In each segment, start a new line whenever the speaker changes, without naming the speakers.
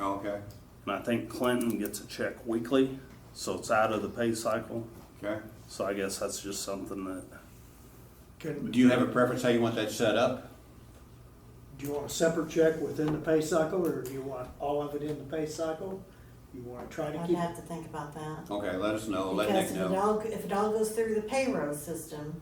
Okay,
And I think Clinton gets a check weekly, so it's out of the pay cycle.
okay.
So I guess that's just something that,
Can,
Do you have a preference how you want that set up?
do you want a separate check within the pay cycle, or do you want all of it in the pay cycle? You wanna try to
I'd
keep,
have to think about that.
Okay, let us know, let
Because
Nick
if it
know.
all, if it all goes through the payroll system,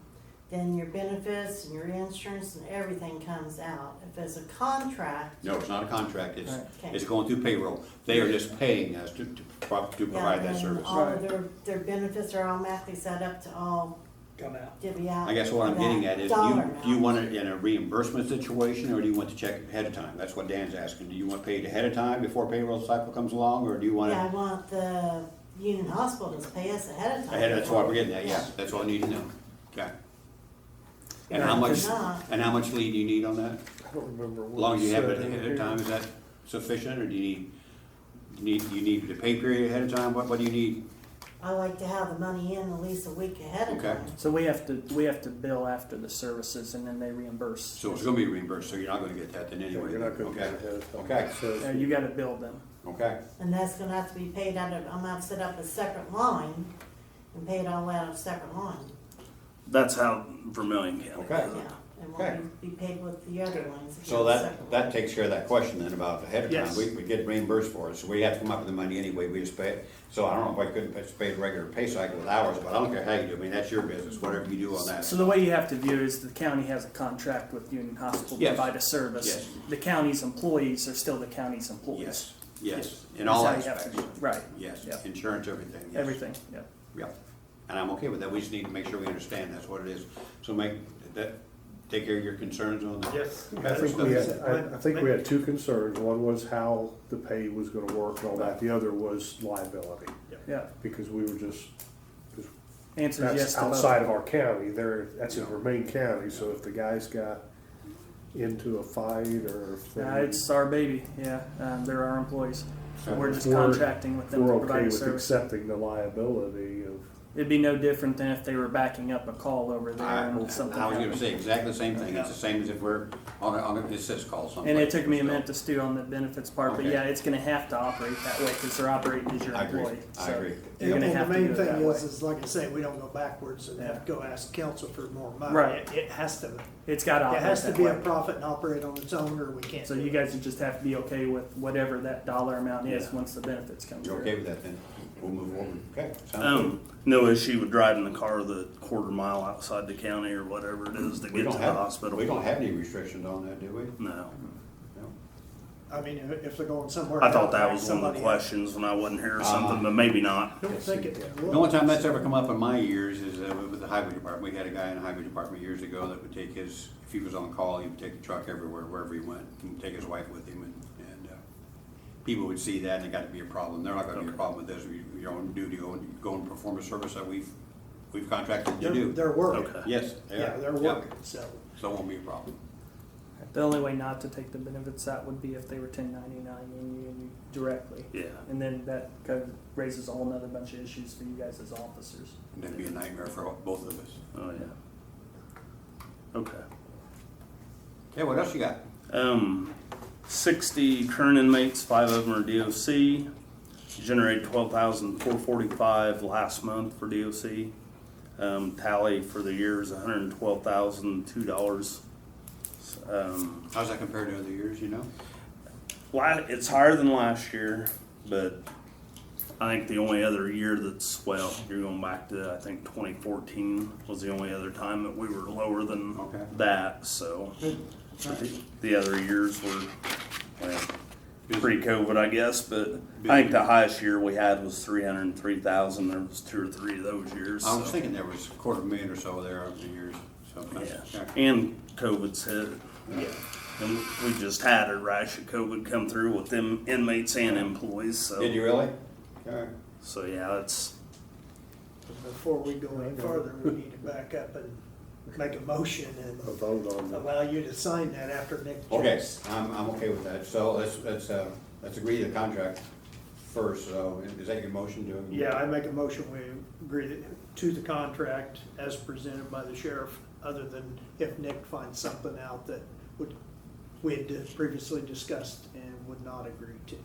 then your benefits and your insurance and everything comes out. If it's a contract,
No, it's not a contract, it's,
okay.
it's going through payroll. They are just paying us to, to pro- to
yeah,
provide that
then
service.
All of their, their benefits are automatically set up to all
come out?
divvy out.
I guess what I'm getting
that
at is, do
dollar
you, do you
amount.
want it in a reimbursement situation, or do you want the check ahead of time? That's what Dan's asking. Do you want paid ahead of time before payroll cycle comes along, or do you want
Yeah, I
it?
want the union hospital to pay us ahead of time.
Ahead, that's what we're getting at, yeah, that's all I need to know. Okay. And how
Yeah,
much,
If not,
and how much lead do you need on that?
I don't remember
As
what.
long as
we
you have it
said in
ahead of
here.
time, is that sufficient, or do you need, you need, you need the pay period ahead of time? What, what do you need?
I like to have the money in at least a week ahead of
Okay.
time.
So we have to, we have to bill after the services and then they reimburse.
So it's gonna be reimbursed, so you're not gonna get that then
Yeah,
anyway.
You're not gonna
Okay.
get ahead of time.
Okay.
It says-
Uh, You gotta bill them.
Okay,
And that's gonna have to be paid out of, I'm gonna have to set up a separate line and pay it all out of separate line.
that's how Vermillion County.
okay.
Yeah, and
Okay.
won't be be paid with the other lines. if
So
it's
that,
separate.
that takes care of that question then about ahead of time.
Yes.
We, we get reimbursed for it, so we have to come up with the money anyway, we just pay it. So I don't know if I couldn't pay- pay a regular pay cycle with hours, but I don't care how you do, it. I mean, that's your business, whatever you do on that.
So the way you have to view it is the county has a contract with Union Hospital to
Yes.
provide a service.
Yes.
The county's employees are still the county's employees.
Yes, yes, in all
That's how you have
aspects,
to do it. Right,
yes,
Yep.
insurance, everything, yes.
everything, yeah.
Yeah, and I'm okay with that, we just need to make sure we understand that's what it is. So make, that, take care of your concerns on that.
Yes. I
Better
think
stuff.
we had, I, I think we had two concerns. One was how the pay was gonna work and all that. The other was liability.
Yeah,
Because we were just, because
answers yes
that's
to both.
outside of our county. There, that's in
Yeah.
Vermain County, so if the guys got into a fight or if they
Uh, it's our baby, yeah, um, they're our employees. So we're just
We're-
contracting with them
we're
to
okay
provide a
with
service.
accepting the liability of,
It'd be no different than if they were backing up a call over there
I, I
and
was
something
gonna
happened.
say exactly the same thing, it's the same as if we're on a, on a, it says call something.
And it took me a minute to stew on the benefits part, but
Okay.
yeah, it's gonna have to operate that way because they're operating as your
I agree,
employee.
I
so
agree.
You're gonna
Well,
have to do
The
it
main
that
thing
way.
is, is like I say, we don't go backwards and have to go ask council for more money.
Right.
It- It has to, it
It's gotta operate
has to
that
be a
way.
profit and operate on its own, or we can't.
So
do
you
it.
guys just have to be okay with whatever that dollar amount is
Yeah.
once the benefits come
You're
through.
okay with that then? We'll move forward, okay? sounds good.
Um, no issue with driving the car the quarter mile outside the county or whatever it is to
We
get to
don't
the
have,
hospital.
we don't have any restrictions on that, do we?
No.
No?
I mean, if if they're going somewhere.
I thought that was one of
somebody-
the questions when I wasn't here or
Uh,
something, but maybe not.
I Don't think it.
The only time that's ever come up in my years is uh, with the highway department. We had a guy in the highway department years ago that would take his, if he was on call, he would take the truck everywhere, wherever he went, and take his wife with him, and, and uh, people would see that, and it got to be a problem. They're not gonna be a problem with this. We- You're on duty, go and, go and perform a service that we've, we've contracted to
They're,
do.
they're working.
Okay.
Yes, they are.
Yeah, they're
Yep.
working, so.
So it won't be a problem.
The only way not to take the benefits out would be if they were ten ninety-nine in you directly.
Yeah.
And then that kind of raises a whole nother bunch of issues for you guys as officers.
And that'd be a nightmare for all- both of us.
Oh, yeah. Okay.
Okay, what else you got?
Um, 60 current inmates, five of them are DOC. Generated 12,445 last month for DOC. Um, tally for the year is 112,002 dollars. Um,
How's that compared to other years, you know?
la- it's higher than last year, but I think the only other year that's well, you're going back to I think 2014 was the only other time that we were lower than
Okay.
that. So but the, the other years were well,
Busy.
pre-COVID, I guess. But I think the highest year we had was 303,000. There was two or three of those years.
I was
so,
thinking there was a quarter million or so there over the years, so.
yeah,
okay.
and COVID's hit. And we just had a rash of COVID come through with them inmates and employees,
Did
so,
you really? Okay.
so yeah, it's,
Before we go any further, we need to back up and make a motion
a
and
vote on the
allow you to sign that after Nick
Okay,
checks.
I'm, I'm okay with that, so let's, let's, uh, let's agree to the contract first, so is that your motion to?
Yeah, I make a motion, we agree to the contract as presented by the sheriff, other than if Nick finds something out that would, we had previously discussed and would not agree to.